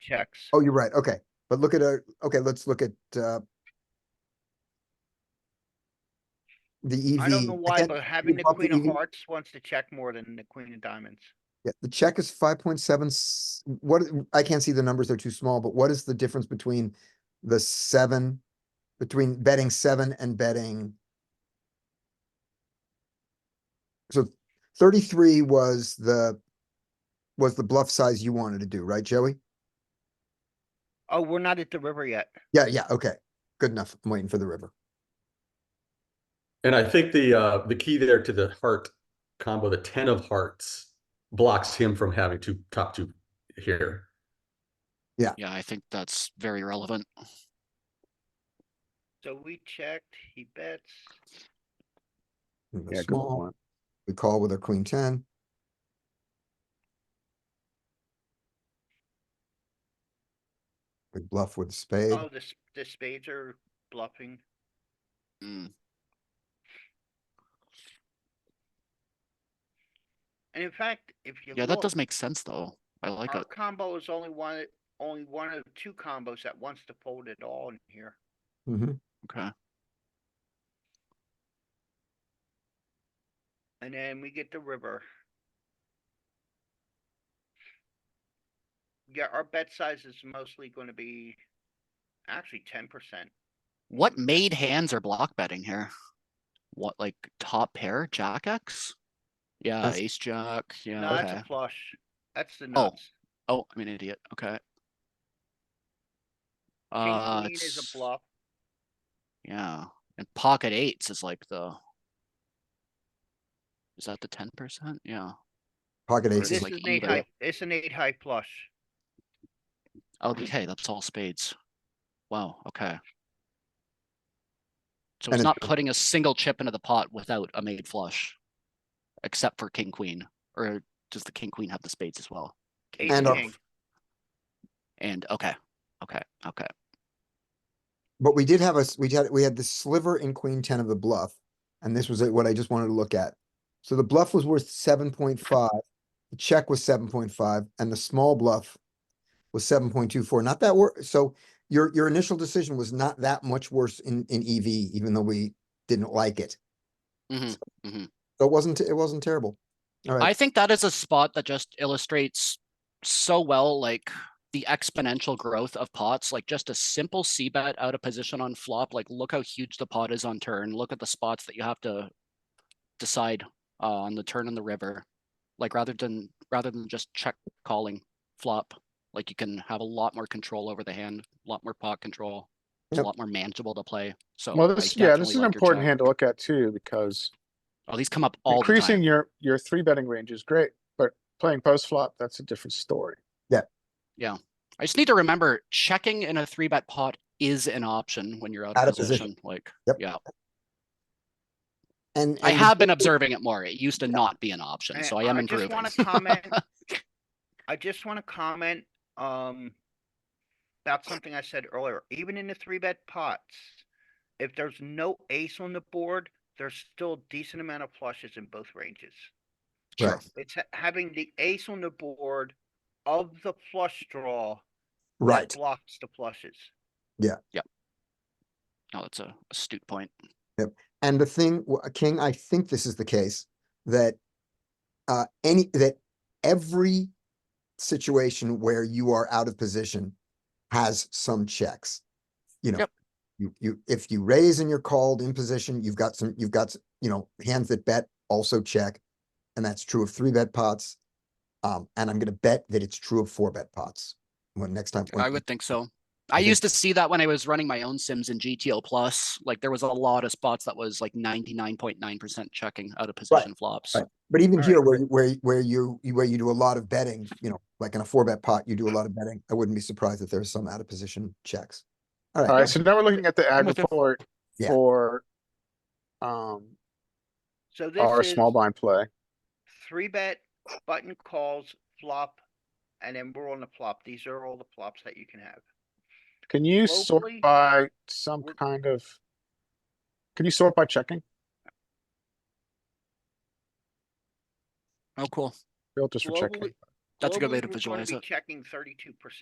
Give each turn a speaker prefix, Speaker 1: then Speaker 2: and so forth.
Speaker 1: checks.
Speaker 2: Oh, you're right. Okay. But look at, a okay, let's look at, uh, the E EV.
Speaker 1: I don't know why,
Speaker 2: Again,
Speaker 1: but having the
Speaker 2: bump the
Speaker 1: queen of
Speaker 2: EV.
Speaker 1: hearts wants to check more than the queen of diamonds.
Speaker 2: Yeah, the check is five point seven, what, I can't see the numbers, they're too small, but what is the difference between the seven, between betting seven and betting? So thirty-three was the, was the bluff size you wanted to do, right, Joey?
Speaker 1: Oh, we're not at the river yet.
Speaker 2: Yeah, yeah, okay, good enough, I'm waiting for the river.
Speaker 3: And I think the uh the key there to the heart combo, the ten of hearts blocks him from having two top two here.
Speaker 4: Yeah, I think that's very relevant.
Speaker 1: So we checked, he bets.
Speaker 2: We go
Speaker 5: Yeah, good
Speaker 2: small.
Speaker 5: point.
Speaker 2: We call with our queen ten. We bluff with spade.
Speaker 1: Oh, the, s- the spades are bluffing.
Speaker 4: Mm,
Speaker 1: And in fact, if you
Speaker 4: Yeah, that
Speaker 1: look,
Speaker 4: does make sense though. I like
Speaker 1: our
Speaker 4: it.
Speaker 1: combo is only one, only one of two combos that wants to fold it all in here.
Speaker 2: Mhm.
Speaker 4: Okay.
Speaker 1: And then we get the river. Yeah, our bet size is mostly gonna be actually ten percent.
Speaker 4: What made hands are block betting here? What, like top pair, jack X? Yeah,
Speaker 2: That's-
Speaker 4: ace jack,
Speaker 1: No,
Speaker 4: yeah,
Speaker 1: that's
Speaker 4: okay.
Speaker 1: a flush. That's the nuts.
Speaker 4: Oh, I'm an idiot, okay.
Speaker 1: King
Speaker 4: Uh,
Speaker 1: queen is
Speaker 4: it's,
Speaker 1: a bluff.
Speaker 4: yeah, and pocket eights is like the. Is that the ten percent? Yeah,
Speaker 2: Pocket aces.
Speaker 4: This
Speaker 1: This is
Speaker 4: like
Speaker 1: an eight
Speaker 4: either.
Speaker 1: high, it's an eight high flush.
Speaker 4: okay, that's all spades. Wow, okay. So
Speaker 2: And
Speaker 4: it's
Speaker 2: it-
Speaker 4: not putting a single chip into the pot without a made flush. Except for king, queen, or does the king, queen have the spades as well? King,
Speaker 1: Ace
Speaker 2: And
Speaker 4: queen,
Speaker 2: our-
Speaker 1: king.
Speaker 4: And, okay, okay, okay,
Speaker 2: But we did have us, we had, we had the sliver in queen ten of the bluff, and this was what I just wanted to look at. So the bluff was worth seven point five, the check was seven point five, and the small bluff was seven point two four, not that wor, so your, your initial decision was not that much worse in, in EV, even though we didn't like it.
Speaker 4: mhm.
Speaker 2: So it wasn't, it wasn't terrible. All right.
Speaker 4: I think that is a spot that just illustrates so well, like the exponential growth of pots, like just a simple C bet out of position on flop, like look how huge the pot is on turn, look at the spots that you have to decide uh, on the turn and the river. Like rather than, rather than just check calling flop, like you can have a lot more control over the hand, a lot more pot control. It's a
Speaker 2: Yep.
Speaker 4: lot more manageable to play, so.
Speaker 6: Well,
Speaker 4: I
Speaker 6: this, yeah, this
Speaker 4: definitely
Speaker 6: is an
Speaker 4: like your
Speaker 6: important
Speaker 4: check.
Speaker 6: hand to look at too, because
Speaker 4: Oh, these come up all the time.
Speaker 6: increasing your, your three betting range is great, but playing post flop, that's a different story.
Speaker 4: I just need to remember checking in a three bet pot is an option when you're out, of position. Like,
Speaker 2: Yep.
Speaker 4: yeah,
Speaker 2: And.
Speaker 4: I
Speaker 2: and
Speaker 4: have been observing it more. It used to not be an option,
Speaker 1: And
Speaker 4: so I am
Speaker 1: I just
Speaker 4: improving.
Speaker 1: wanna comment, I just wanna comment, um. About something I said earlier, even in the three bet pots, if there's no ace on the board, there's still decent amount of flushes in both ranges.
Speaker 4: Sure.
Speaker 1: It's ha- having the ace on the board of the flush draw. that
Speaker 2: Right,
Speaker 1: Blocks the flushes.
Speaker 4: No, that's a astute point.
Speaker 2: and the thing, w- uh, King, I think this is the case, that uh, any, that every situation where you are out of position has some checks. You know,
Speaker 4: Yep.
Speaker 2: you, you, if you raise and you're called in position, you've got some, you've got, s- you know, hands that bet also check. And that's true of three bet pots. Um, and I'm gonna bet that it's true of four bet pots. When next time. when-
Speaker 4: I would think so.
Speaker 2: I
Speaker 4: I
Speaker 2: think-
Speaker 4: used to see that when I was running my own sims in GTO plus. Like there was a lot of spots that was like ninety nine point nine percent checking out of position flops.
Speaker 2: right. But even
Speaker 1: All
Speaker 2: here,
Speaker 1: right.
Speaker 2: where, you- where, you- where you, you- where you do a lot of betting, you know, like in a four bet pot, you do a lot of betting. I wouldn't be surprised if there's some out of position checks. All
Speaker 6: Alright,
Speaker 2: right,
Speaker 6: so now we're looking at the ag
Speaker 4: with you.
Speaker 6: report
Speaker 2: Yeah.
Speaker 6: for um,
Speaker 1: So
Speaker 6: our
Speaker 1: this is
Speaker 6: small blind play.
Speaker 1: three bet, button calls, flop, and then we're on the flop. These are all the flops that you can have.
Speaker 6: Can you sort
Speaker 1: Locally,
Speaker 6: by some
Speaker 1: we're-
Speaker 6: kind of? Can you sort by checking?
Speaker 4: Oh, cool.
Speaker 6: Bill, just for checking.
Speaker 1: Globally-
Speaker 4: That's a good
Speaker 1: globally,
Speaker 4: way to
Speaker 1: we're gonna
Speaker 4: visualize
Speaker 1: be
Speaker 4: it.
Speaker 1: Checking thirty-two percent.